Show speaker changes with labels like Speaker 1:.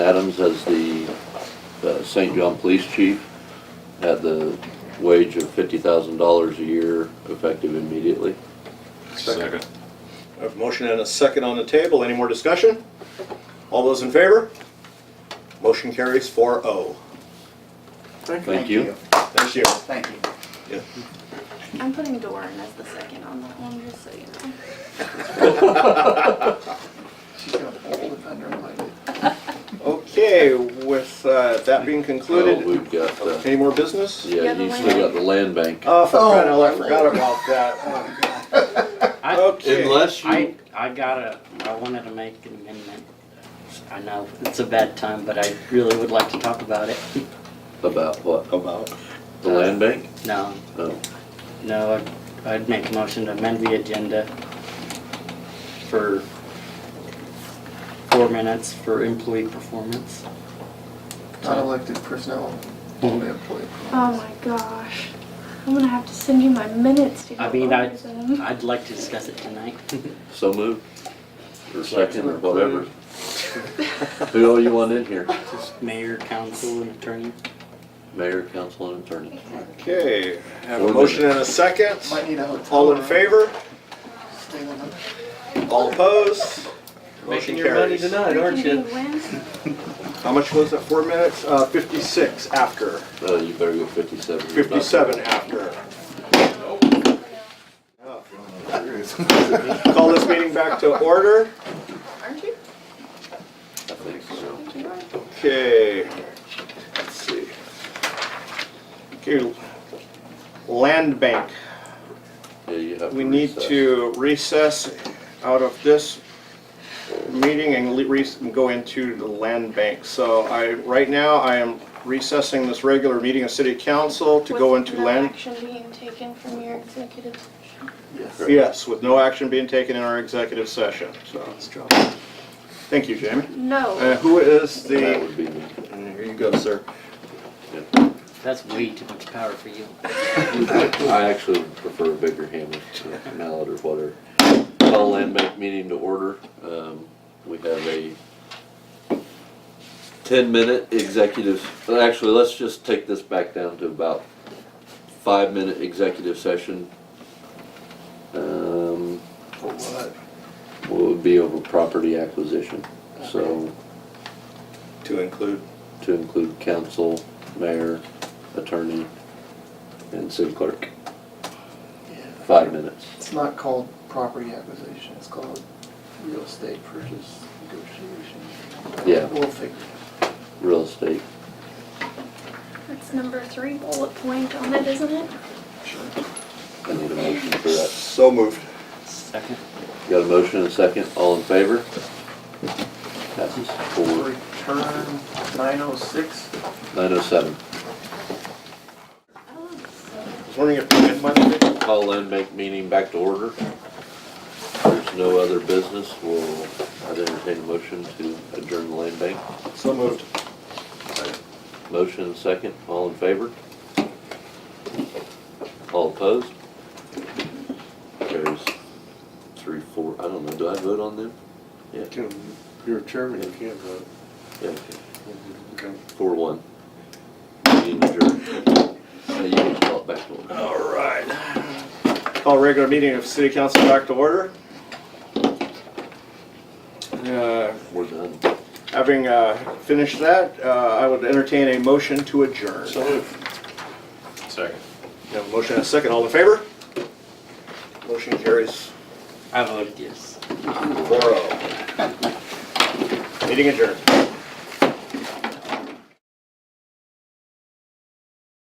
Speaker 1: Adams as the uh, St. John Police Chief at the wage of fifty thousand dollars a year effective immediately.
Speaker 2: Second.
Speaker 3: I have a motion and a second on the table. Any more discussion? All those in favor? Motion carries 4-0.
Speaker 1: Thank you.
Speaker 3: Thank you.
Speaker 4: Thank you.
Speaker 5: I'm putting Doran as the second on that one, just so you know.
Speaker 4: She's gonna pull the thunder and light it.
Speaker 3: Okay, with uh, that being
Speaker 1: So
Speaker 3: concluded,
Speaker 1: we've got, uh,
Speaker 3: any more business?
Speaker 5: Yeah,
Speaker 1: yeah,
Speaker 5: the
Speaker 1: you still got the land bank.
Speaker 3: Oh, for crying out loud, I
Speaker 4: Oh.
Speaker 3: forgot about that. Um,
Speaker 4: Oh, God.
Speaker 3: Okay.
Speaker 1: Unless
Speaker 6: I,
Speaker 1: you,
Speaker 6: I gotta, I wanted to make an amendment. I know it's a bad time, but I really would like to talk about it.
Speaker 1: about what?
Speaker 3: About.
Speaker 1: The land bank? Oh,
Speaker 6: No,
Speaker 1: No.
Speaker 6: no, I'd- I'd make a motion to amend the agenda for four minutes for employee performance.
Speaker 4: Not elected personnel, only employee.
Speaker 5: Oh my gosh. I'm gonna have to send you my minutes to go
Speaker 6: I mean, I-
Speaker 5: over them.
Speaker 6: I'd like to discuss it tonight.
Speaker 1: So moved? Or second or whatever? Who all you want in here?
Speaker 6: Just mayor, council, and attorney.
Speaker 1: Mayor, council, and attorney.
Speaker 3: Okay, I have a
Speaker 1: Four
Speaker 3: motion and a second.
Speaker 4: Might need a hotel.
Speaker 3: All in
Speaker 4: room.
Speaker 3: favor?
Speaker 4: Stay on the-
Speaker 3: All opposed? Motion
Speaker 1: Making your money
Speaker 3: carries.
Speaker 1: tonight, aren't you?
Speaker 3: How much was it? Four minutes? Uh, 56 after,
Speaker 1: Uh, you better go fifty-seven. You're not-
Speaker 3: 57 after. Call this meeting back to order.
Speaker 5: Aren't you?
Speaker 1: I think so.
Speaker 5: Aren't you? Doran?
Speaker 3: Okay, let's see. Okay, land bank.
Speaker 1: Yeah, you have to
Speaker 3: We need
Speaker 1: recess.
Speaker 3: to recess out of this meeting and le- re- and go into the land bank. So I, right now, I am recessing this regular meeting of city council to go
Speaker 5: With
Speaker 3: into
Speaker 5: no
Speaker 3: land.
Speaker 5: action being taken from your executive session.
Speaker 4: Yes.
Speaker 1: action.
Speaker 3: Yes, with no action being taken in our executive session, so.
Speaker 4: Let's drop.
Speaker 3: Thank you, Jamie. Uh,
Speaker 5: No.
Speaker 3: who is
Speaker 1: That
Speaker 3: the,
Speaker 1: would be me.
Speaker 3: here you go, sir.
Speaker 6: That's way too much power for you.
Speaker 1: I actually prefer a bigger hammer to a mallet or whatever. Call land bank meeting to order. Um, we have a ten-minute executive, well, actually, let's just take this back down to about five-minute executive session. Um,
Speaker 4: For what?
Speaker 1: what would be over property acquisition, so
Speaker 3: To include
Speaker 1: to include council, mayor, attorney, and city clerk,
Speaker 4: Yeah.
Speaker 1: five minutes.
Speaker 4: It's not called property acquisition, it's called real estate purchase negotiation.
Speaker 1: Yeah.
Speaker 4: We'll figure
Speaker 1: Real estate
Speaker 5: That's number three bullet point on it, isn't it?
Speaker 4: it. Sure.
Speaker 1: I need a motion for that.
Speaker 3: So moved.
Speaker 6: Second.
Speaker 1: Got a motion and a second, all in favor? Passes four,
Speaker 4: Return nine oh six.
Speaker 1: nine oh seven.
Speaker 5: Oh,
Speaker 3: I was wondering if you had my thing?
Speaker 1: Call land bank meeting back to order. If There's no other business, we'll, I'd entertain a motion to adjourn the land bank.
Speaker 3: So moved.
Speaker 1: Motion and second, all in favor? All opposed? Carries three, four, I don't know, do I vote on them? Yeah,
Speaker 7: You're a chairman, you can't vote.
Speaker 1: yeah, okay. four, one. Meeting adjourned. Now you can call it back to order.
Speaker 3: All right. Call regular meeting of city council back to order. Uh,
Speaker 1: We're done.
Speaker 3: Having uh, finished that, uh, I would entertain a motion to adjourn.
Speaker 7: So moved. Second.
Speaker 3: We have a motion and a second. All in favor? Motion carries
Speaker 6: I voted yes.
Speaker 3: four oh. Meeting adjourned.